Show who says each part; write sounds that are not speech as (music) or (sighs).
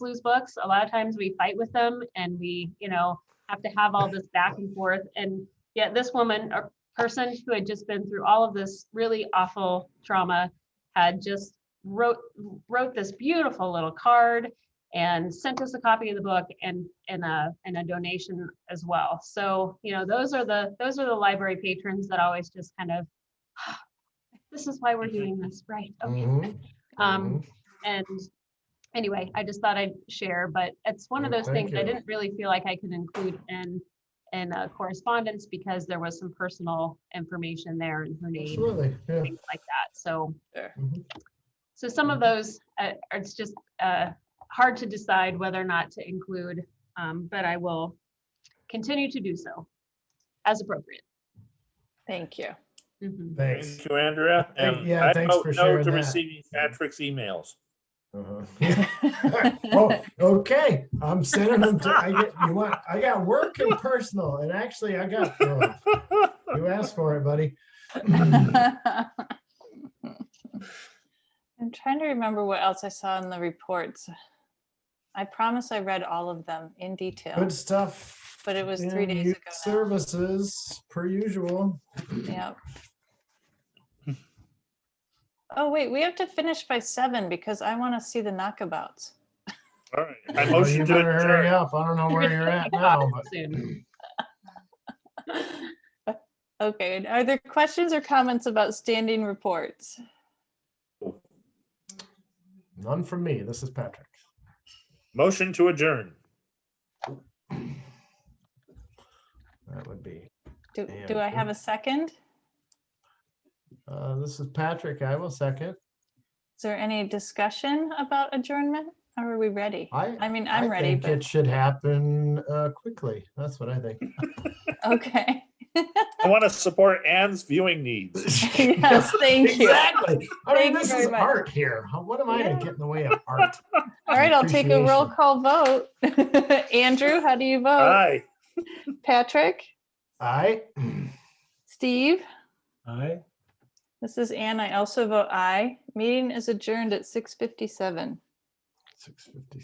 Speaker 1: who's books. A lot of times we fight with them and we, you know, have to have all this back and forth. And yet this woman or person who had just been through all of this really awful trauma had just wrote wrote this beautiful little card and sent us a copy of the book and and a and a donation as well. So, you know, those are the those are the library patrons that always just kind of (sighs) this is why we're doing this, right? Okay.
Speaker 2: Mm-hmm.
Speaker 3: Mhm,
Speaker 1: Um,
Speaker 3: mhm.
Speaker 1: and anyway, I just thought I'd share, but it's one of
Speaker 3: Well,
Speaker 1: those things
Speaker 3: Mm, thank
Speaker 1: I
Speaker 3: you.
Speaker 1: didn't really feel like I could include in, in uh, correspondence because there was some personal information there and her name,
Speaker 3: Absolutely, yeah.
Speaker 1: things like that. So,
Speaker 3: mhm.
Speaker 1: so some of those, uh, are- it's just uh, hard to decide whether or not to include, um, but I will continue to do so as appropriate.
Speaker 4: Thank you.
Speaker 1: Mhm.
Speaker 3: Thanks.
Speaker 2: Thank you, Andrea.
Speaker 3: Thank-
Speaker 2: And
Speaker 3: yeah,
Speaker 2: I
Speaker 3: thanks
Speaker 2: vote
Speaker 3: for
Speaker 2: no
Speaker 3: sharing
Speaker 2: to
Speaker 3: that.
Speaker 2: receiving Patrick's emails.
Speaker 3: Uh-huh. Oh, okay, I'm sending them to, I get, you want, I got work and personal, and actually I got, both. you asked for it, buddy.
Speaker 4: I'm trying to remember what else I saw in the reports. I promise I read all of them in detail,
Speaker 3: Good stuff.
Speaker 4: but it was three
Speaker 3: in
Speaker 4: days
Speaker 3: youth
Speaker 4: ago. now.
Speaker 3: Services, per usual.
Speaker 4: Yep. Oh, wait, we have to finish by seven because I want to see the knockabouts. (laughs)
Speaker 2: All right. I
Speaker 3: Well, Oh, You
Speaker 2: motion to
Speaker 3: better hurry
Speaker 2: adjourn.
Speaker 3: up, I don't know where you're
Speaker 4: (laughs)
Speaker 3: at now, but
Speaker 1: Soon.
Speaker 4: Okay, and are there questions or comments about standing reports?
Speaker 3: none from me, this is Patrick.
Speaker 2: Motion to adjourn.
Speaker 3: That would be,
Speaker 4: Do,
Speaker 3: Yeah,
Speaker 4: do I have a second?
Speaker 3: uh, this is Patrick, I will second.
Speaker 4: Is there any discussion about adjournment? Or are we ready?
Speaker 3: I-
Speaker 4: I mean, I'm
Speaker 3: I
Speaker 4: ready,
Speaker 3: think It
Speaker 4: but,
Speaker 3: should happen, uh, quickly, that's what I think. (laughs)
Speaker 4: okay. (laughs)
Speaker 2: I want to support Anne's viewing needs.
Speaker 3: (laughs)
Speaker 4: Yes, thank you.
Speaker 3: Exactly. I mean,
Speaker 4: Thank you
Speaker 3: this
Speaker 4: very
Speaker 3: is
Speaker 4: much.
Speaker 3: art here. How- What am I to
Speaker 4: Yeah.
Speaker 3: get in the way of art?
Speaker 4: All right, I'll take a roll
Speaker 3: Appreciation.
Speaker 4: call vote. (laughs) Andrew, how do you vote?
Speaker 2: Aye.
Speaker 4: Patrick?
Speaker 3: I,
Speaker 4: Steve?
Speaker 2: Aye.
Speaker 4: This is Anne. I also vote aye. Meeting is adjourned at 6:57.
Speaker 3: six fifty